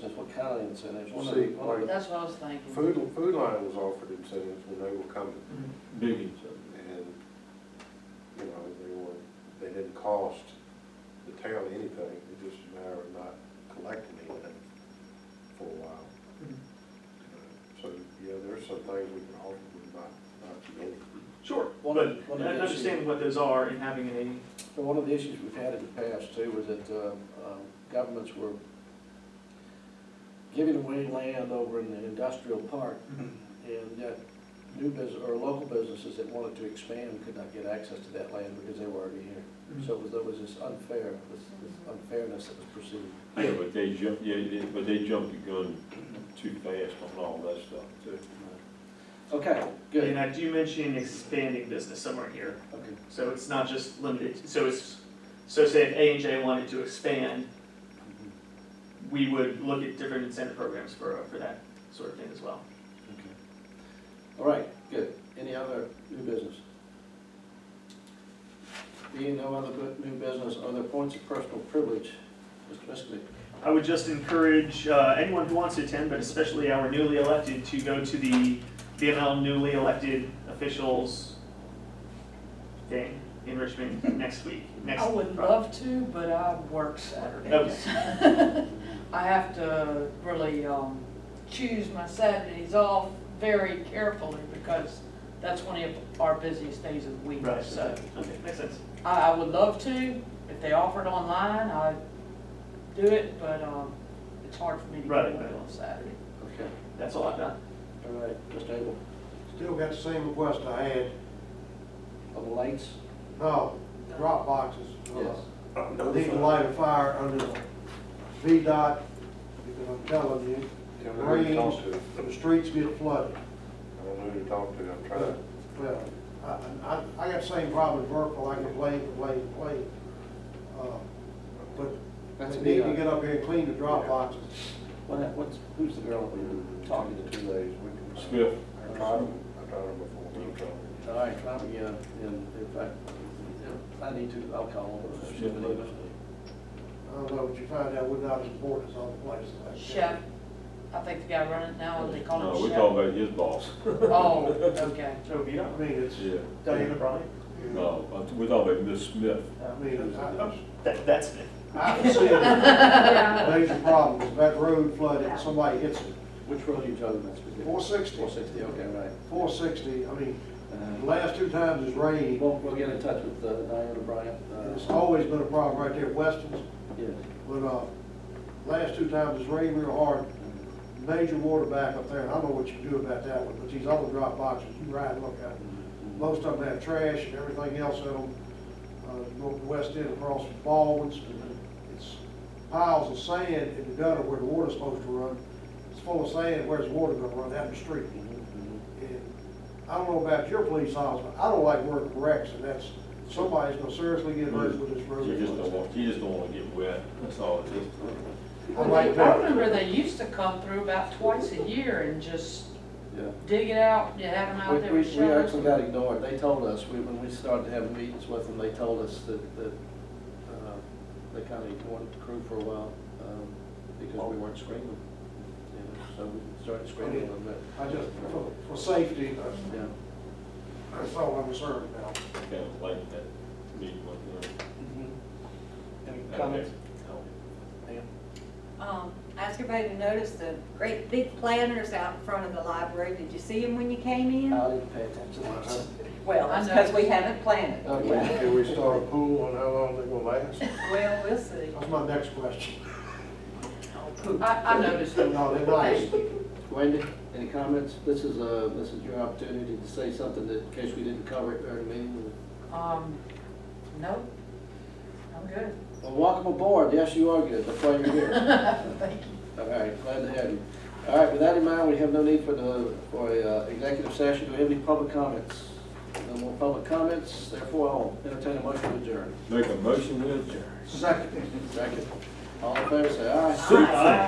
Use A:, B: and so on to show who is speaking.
A: That's what county incentives.
B: Well,
A: were.
B: see, like-
C: That's what I was thinking.
B: Food, Food Line was offered incentives when they were coming,
D: Biggie, so.
B: and, you know, they were, they didn't cost the town anything, it was just a matter of not collecting anything for a while. So, yeah, there's some things we can offer, but not, not too many.
E: Sure,
A: One
E: but
A: of- one of the
E: understanding what those are and having an
A: And one of the issues we've had in the past too was that uh, um, governments were giving away land over in the industrial park
E: Mm-hmm.
A: and yet new business, or local businesses that wanted to expand could not get access to that land because they were already
B: Mm-hmm.
A: here. So it was, there was this unfair, this this unfairness that was perceived.
D: Yeah, but they jump, yeah, they- but they jumped the gun too fast on all that stuff, too.
A: Okay,
E: A. And
A: good.
E: I do mention expanding business somewhere here,
A: Okay.
E: so it's not just limited, so it's, so say if A and J wanted to expand,
A: Mm-hmm.
E: we would look at different incentive programs for, for that sort of thing as well.
A: Okay. All right, good. Any other new business? Being no other bu- new business, other points of personal privilege, Mr. Miskovic?
E: I would just encourage uh, anyone who wants to attend, but especially our newly elected, to go to the BML newly elected officials thing in Richmond next week. Next
C: I would love to, but I work Saturdays. I have to really um, choose my Saturdays off very carefully because that's one of our busiest days of the week.
E: Right,
C: So
E: so, okay, makes sense.
C: I, I would love to, if they offer it online, I'd do it, but um, it's hard for me to get
E: Right,
C: away
E: right.
C: on Saturday.
A: Okay,
E: That's all I've done.
A: all right, Mr. Abel,
F: Still got the same request I had,
A: on the lights?
F: no, drop boxes. uh,
A: Yes.
F: I Need to light a fire under the VDOT, because I'm telling you,
B: I don't know who to talk to,
F: the streets get flooded.
B: I don't know who to talk to, I'm trying.
F: Well, I, I, I got the same problem in Burkeville, I can blame, blame, blame. Uh, But
A: That's
F: they
A: a
F: need to
A: VDOT.
F: get up here and clean the drop boxes.
A: What, what's, who's the girl that we're talking
B: Two
A: to?
B: days, we can.
D: Smith.
B: I tried them, I tried them before, we were talking.
A: All right, try me again, and if I, if I need to, I'll call over.
F: I don't know, but you find out we're not as important as other places like that.
C: Chef, I think the guy running it now, Oh, they call
D: No,
C: him
D: we're
C: chef.
D: talking about his boss.
C: Oh, okay.
E: So Vito,
F: I mean, it's,
D: Yeah.
E: Diana Bryant,
D: No, but we're talking about Miss Smith.
F: I mean, I, I-
E: that, that's it.
F: I can see the major problem, is that road flooded, and somebody hits it.
A: Which road are you talking about specifically?
F: Four sixty.
A: Four sixty, okay, right.
F: Four sixty, I mean, the
A: Uh,
F: last two times it's rained,
A: We'll, we'll get in touch with uh, Diana Bryant. uh,
F: and it's always been a problem right there at Weston's,
A: Yes.
F: but, uh, last two times it's rained real hard, major water back up there, and I don't know what you can do about that one, but these other drop boxes, you ride and look at them. Most of them have trash and everything else in them, uh, you go up the west end across from Baldwin's, it's piles of sand in the gutter where the water's supposed to run, it's full of sand, where's the water gonna run, out in the street? And I don't know about your police officer, but I don't like working wrecks, and that's, somebody's gonna seriously get hurt with this road.
D: You just don't want, you just don't want to get wet, that's all it is.
F: I
C: Well,
F: like uh,
C: they- I
F: that.
C: remember they used to come through about twice a year and just
A: Yeah.
C: dig it out, you have them
A: We,
C: out there
A: we,
C: with
A: we
C: shovels.
A: actually got ignored. They told us, we, when we started having meetings with them, they told us that, that, uh, they kinda ignored the crew for a while, um, because we weren't screening. you know, So we started screening a little bit,
F: I just, for, for safety, that's,
A: yeah.
F: that's all I'm concerned about.
D: Kind of like that meeting with them.
A: Any comments?
G: Um, ask everybody to notice the great big planters out in front of the library. Did you see them when you came
A: I
G: in?
F: Uh,
A: didn't pay attention.
G: Well,
C: I
G: that's because we
C: noticed.
G: haven't planted.
A: Okay.
G: yet.
B: Can we start a pool on how long they gonna last?
G: Well, we'll see.
F: That's my next question.
C: I, I noticed them.
F: No, they're nice.
A: Wendy, any comments? This is, uh, this is your opportunity to say something that, in case we didn't cover it during the meeting.
C: Um, nope, I'm good.
A: Well, welcome aboard. Yes, you are good. That's why you're here.
C: Thank you.
A: All right, glad to have you. All right, with that in mind, we have no need for the, for a uh, executive session. Do we have any public comments? No more public comments, therefore I'll entertain a motion to adjourn.
D: Make a motion, we adjourn.
F: Second.
A: Second. All in favor, say aye.
D: Super.
E: Aye.